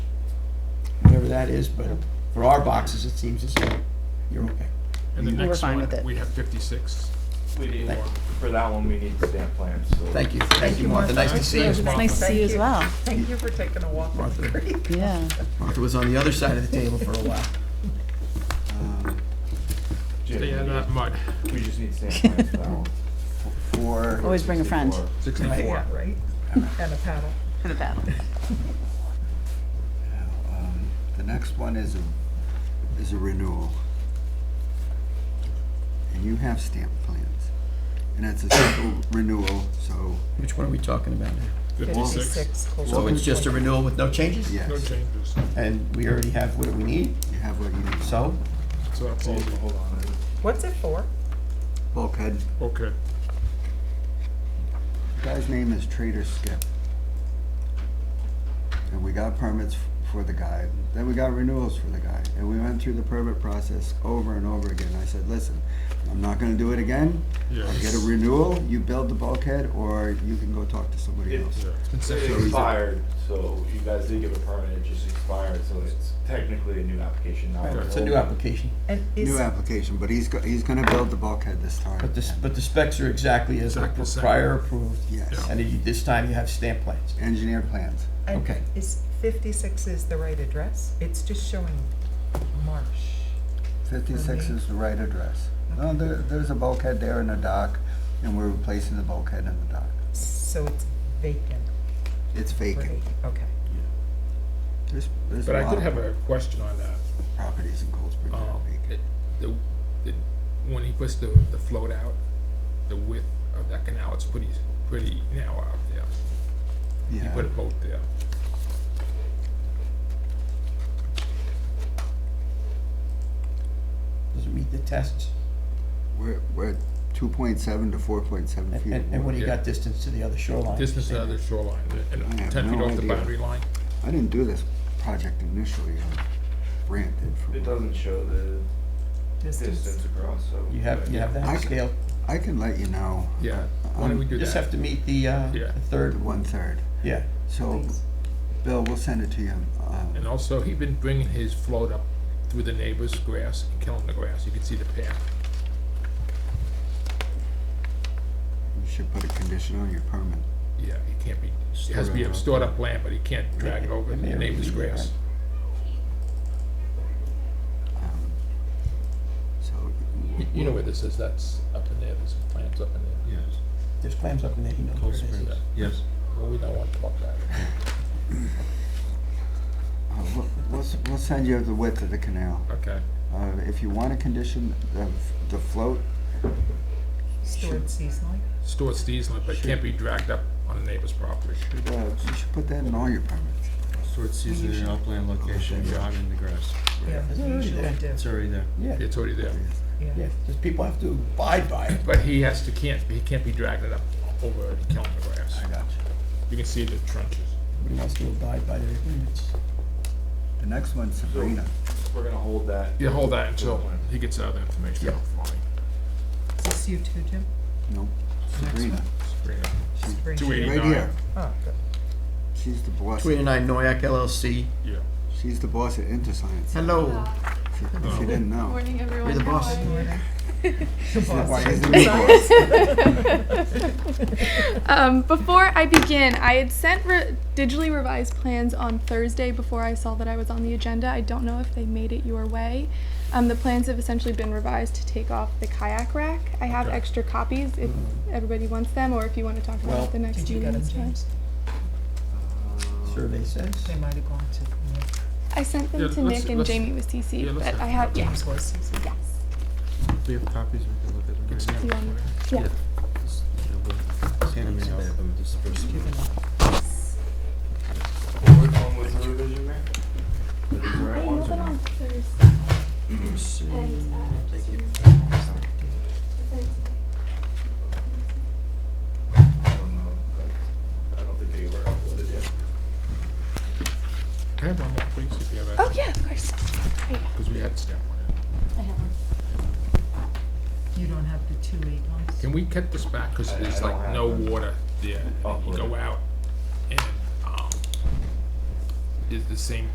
that is, but for our boxes, it seems as though you're okay. And the We're next fine one, with it. we have fifty-six. We need Thank- more, for that one, we need stamp plans, so. Thank you, thank you, Martha, nice to see you. Martha. Nice to see you as well. Thank you for taking a walk on the Martha. creek. Yeah. Martha was on the other side of the table for a while. Jim, Stay out of that mud. We just need stamp plans for that one. Four. Always bring a friend. 64. Sixty-four. Yeah, right? And a paddle. In a battle. Um, The next one is a, is a renewal. And you have stamp plans. And it's a simple renewal, so, Which one are we talking about now? Fifty-six. So it's just a renewal with no changes? No yes, changes. And we already have what we need, you have what you need. so, So that's Hold easy. hold on, What's it for? Bulkhead, Okay. The guy's name is Trader Skip. And we got permits f- for the guy, then we got renewals for the guy. And we went through the permit process over and over again. I said, listen, I'm not gonna do it again. I'll get a Yes. renewal, you build the bulkhead, or you can go talk to somebody It- else. Yeah. it expired, so you guys did give a permit, it just expired, so it's technically a new application, not. it's a new old. application. And New is, application, but he's, go- he's gonna build the bulkhead this time. But the, but the specs are exactly as the Exactly the same. prior approved, Yes, and you- this time you have stamp plans. engineer plans. and Okay. is fifty-six is the right address? It's just showing marsh. Fifty-six Okay. is the right address. No, there, there's a bulkhead there in the dock, and we're replacing the bulkhead in the dock. So it's vacant, It's right? vacant. Okay. There's, there's But a I lot did have of a question on that. properties in Cold Spring that are Um, vacant. it- the, the, when he puts the, the float out, the width of that canal, it's pretty, pretty narrow out there. He Yeah, put a boat there. Does it meet the tests? we're, we're two point seven to four point seven And, feet. of and and what water. do you got distance to the other shoreline? Distance to the other shoreline, and I have ten feet no off the idea. boundary line. I didn't do this project initially, uh, Brant did for It me. doesn't show the distance across, so. You have, you have I that c- scale? I can let you know. Yeah, why don't we Um, do You just have that? to meet the, uh, Yeah. the third, one-third. yeah. So, Please. Bill, we'll send it to you. um, And also, he been bringing his float up through the neighbor's grass and killing the grass, you can see the path. You should put a condition on your permit. Yeah, he can't be, it has to be Stored up. stored up land, but he can't drag it over It the may neighbor's be, grass. Um, So, You- You know where this is, that's up in there, there's plants up in there. Yes, There's clams up in there, he knows where Cold it is. Springs. yes. Well, we don't want to talk about it. uh, we'll- we'll, s- we'll send you the width of the canal. Okay. Uh, If you want a condition, the, the float, Stored seasonally? Stored seasonally, but it can't be dragged up on a neighbor's property. uh, you should put that in all your permits. So it's usually an upland location, I'm in the grass. Yeah, Is it really usually there? do, It's already there. Yeah, It's already there, yeah. yeah, just people have to abide by it. but he has to, can't, he can't be dragging it up over and killing the grass. got you. You can see the trenches. Everybody wants to abide by their agreements. The next one's Sabrina. We're gonna hold that. You hold that until he gets out that information out for me. Is this you too, Jim? Nope, Sabrina. Bring it up. She's Bring Two it. eighty. right here. Oh, good. She's the boss. 29 Noyak LLC. Yeah. She's the boss at InterScience, Hello. Oh. if you didn't know. Morning, everyone. You're the How boss. are you? Why is it boss? Um, before I begin, I had sent re- digitally revised plans on Thursday before I saw that I was on the agenda. I don't know if they made it your way. Um, the plans have essentially been revised to take off the kayak rack. I have Okay. extra copies if everybody wants them, or if you want to talk about Well- it the next Did you get meeting. them, it's fine. James? Survey says. They might have gone to, yeah, I sent them Yeah, to let's- Nick and let's- Jamie with CC, yeah, let's but have I have yeah, James was seasonal. yes, If we have copies, we can look at them right now. Do you want me- yeah. Just, you know, we'll scan them out. Which one was the revision, Mayor? The I right know ones or that not? on Thursday. And, uh, I don't know, but I don't think they were uploaded yet. Can I have one more, please, if you have Oh that? yeah, of course. There you go. Because we had staff on it. You don't have the two eight ones? Can we cut this back? Because I- I there's don't like have no them. water there. and You Upload go it. out and, um, it's the same